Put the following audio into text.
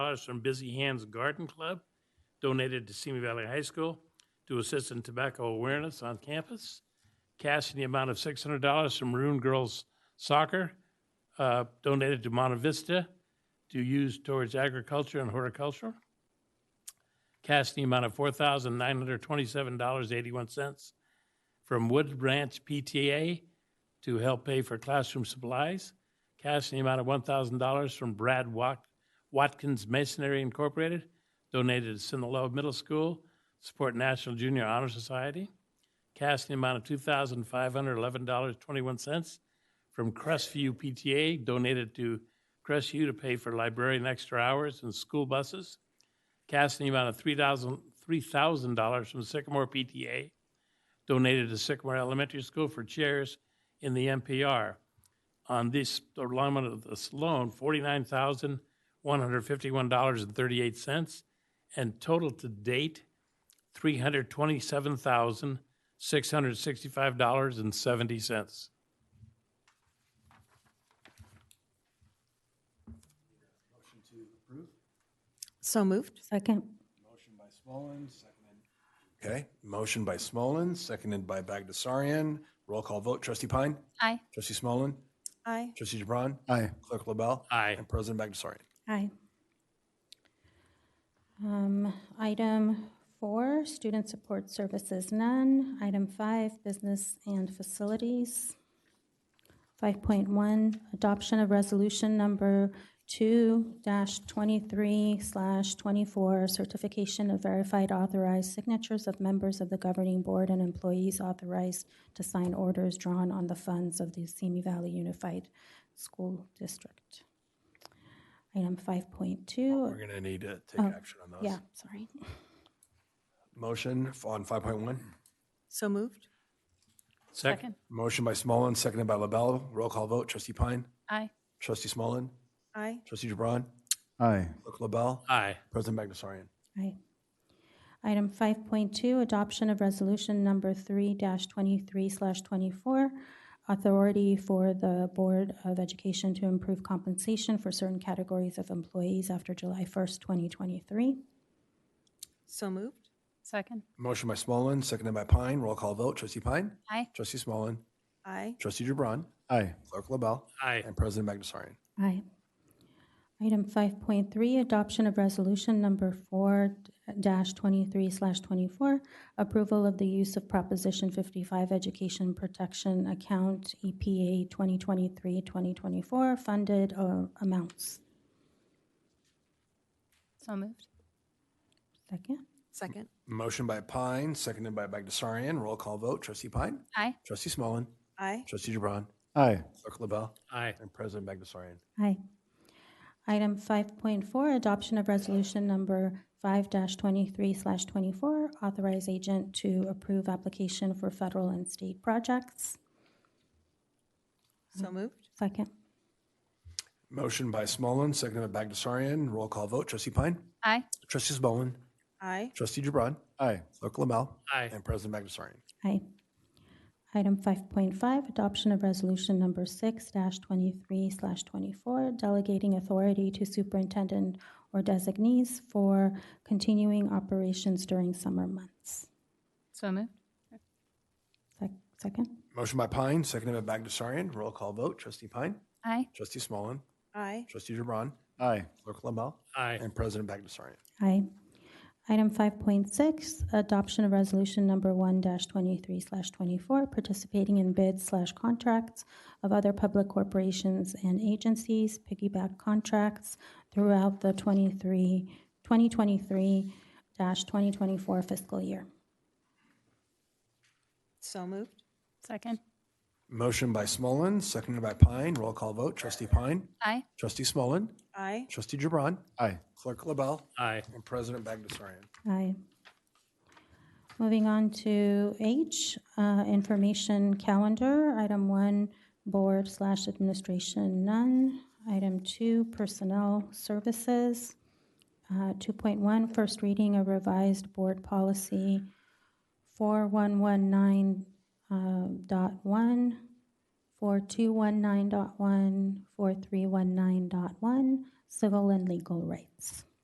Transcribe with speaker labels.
Speaker 1: dollars from Busy Hands Garden Club, donated to Simi Valley High School to assist in tobacco awareness on campus. Cash in the amount of six hundred dollars from Maroon Girls Soccer, uh, donated to Monta Vista to use towards agriculture and horticulture. Cash in the amount of four thousand nine hundred twenty-seven dollars eighty-one cents from Wood Branch PTA to help pay for classroom supplies. Cash in the amount of one thousand dollars from Brad Wat- Watkins Masonry Incorporated, donated to Sinaloa Middle School, support National Junior Honor Society. Cash in the amount of two thousand five hundred eleven dollars twenty-one cents from Crestview PTA, donated to Crestview to pay for librarian extra hours and school buses. Cash in the amount of three thousand three thousand dollars from Sycamore PTA, donated to Sycamore Elementary School for chairs in the NPR. On this alignment of this loan, forty-nine thousand, one hundred fifty-one dollars and thirty-eight cents, and total to date, three hundred twenty-seven thousand, six hundred sixty-five dollars and seventy cents.
Speaker 2: So moved.
Speaker 3: Second.
Speaker 4: Motion by Smolin, seconded. Okay, motion by Smolin, seconded by Bagdasarian. Roll call vote. Trustee Pine?
Speaker 3: Aye.
Speaker 4: Trustee Smolin?
Speaker 2: Aye.
Speaker 4: Trustee Gibran?
Speaker 5: Aye.
Speaker 4: Clerk LaBelle?
Speaker 1: Aye.
Speaker 4: And President Bagdasarian.
Speaker 3: Aye. Um, Item four, student support services, none. Item five, business and facilities. 5.1, adoption of resolution number 2-23/24, slash 24, certification of verified authorized signatures of members of the governing board and employees authorized to sign orders drawn on the funds of the Simi Valley Unified School District. Item 5.2,
Speaker 4: We're going to need to take action on those.
Speaker 3: yeah, sorry.
Speaker 4: Motion f- on 5.1.
Speaker 2: So moved.
Speaker 1: Second?
Speaker 4: Motion by Smolin, seconded by LaBelle. Roll call vote. Trustee Pine?
Speaker 3: Aye.
Speaker 4: Trustee Smolin?
Speaker 2: Aye.
Speaker 4: Trustee Gibran?
Speaker 5: Aye.
Speaker 4: Clerk LaBelle?
Speaker 1: Aye.
Speaker 4: President Bagdasarian.
Speaker 3: Aye. Item 5.2, adoption of resolution number 3-23/24, authority for the Board of Education to improve compensation for certain categories of employees after July 1st, 2023.
Speaker 2: So moved.
Speaker 6: Second.
Speaker 4: Motion by Smolin, seconded by Pine. Roll call vote. Trustee Pine?
Speaker 6: Aye.
Speaker 4: Trustee Smolin?
Speaker 2: Aye.
Speaker 4: Trustee Gibran?
Speaker 5: Aye.
Speaker 4: Clerk LaBelle?
Speaker 1: Aye.
Speaker 4: And President Bagdasarian.
Speaker 3: Aye. Item 5.3, adoption of resolution number 4-23/24, approval of the use of Proposition 55 Education Protection Account E EPA 2023-2024 funded uh, amounts.
Speaker 6: So moved.
Speaker 3: Second?
Speaker 2: Second.
Speaker 4: Motion by Pine, seconded by Bagdasarian. Roll call vote. Trustee Pine?
Speaker 6: Aye.
Speaker 4: Trustee Smolin?
Speaker 2: Aye.
Speaker 4: Trustee Gibran?
Speaker 5: Aye.
Speaker 4: Clerk LaBelle?
Speaker 1: Aye.
Speaker 4: And President Bagdasarian.
Speaker 3: Aye. Item 5.4, adoption of resolution number 5-23/24, authorize agent to approve application for federal and state projects.
Speaker 2: So moved.
Speaker 3: Second?
Speaker 4: Motion by Smolin, seconded by Bagdasarian. Roll call vote. Trustee Pine?
Speaker 6: Aye.
Speaker 4: Trustee Smolin?
Speaker 2: Aye.
Speaker 4: Trustee Gibran?
Speaker 5: Aye.
Speaker 4: Clerk LaBelle?
Speaker 1: Aye.
Speaker 4: And President Bagdasarian.
Speaker 3: Aye. Item 5.5, adoption of resolution number 6-23/24, delegating authority to superintendent or designees for continuing operations during summer months.
Speaker 6: So moved.
Speaker 3: Sec- Second?
Speaker 4: Motion by Pine, seconded by Bagdasarian. Roll call vote. Trustee Pine?
Speaker 6: Aye.
Speaker 4: Trustee Smolin?
Speaker 2: Aye.
Speaker 4: Trustee Gibran?
Speaker 5: Aye.
Speaker 4: Clerk LaBelle?
Speaker 1: Aye.
Speaker 4: And President Bagdasarian.
Speaker 3: Aye. Item 5.6, adoption of resolution number 1-23/24, participating in bids/contracts slash contracts of other public corporations and agencies, piggyback contracts throughout the 2023-2024 fiscal year.
Speaker 2: So moved.
Speaker 6: Second.
Speaker 4: Motion by Smolin, seconded by Pine. Roll call vote. Trustee Pine?
Speaker 6: Aye.
Speaker 4: Trustee Smolin?
Speaker 2: Aye.
Speaker 4: Trustee Gibran?
Speaker 5: Aye.
Speaker 4: Clerk LaBelle?
Speaker 1: Aye.
Speaker 4: And President Bagdasarian.
Speaker 3: Aye. Moving on to H, uh, information calendar. Item one, board slash administration, none. Item two, personnel services. Uh, 2.1, first reading of revised board policy 4119.1, uh, dot one, 4219.1, 4319.1, civil and legal rights.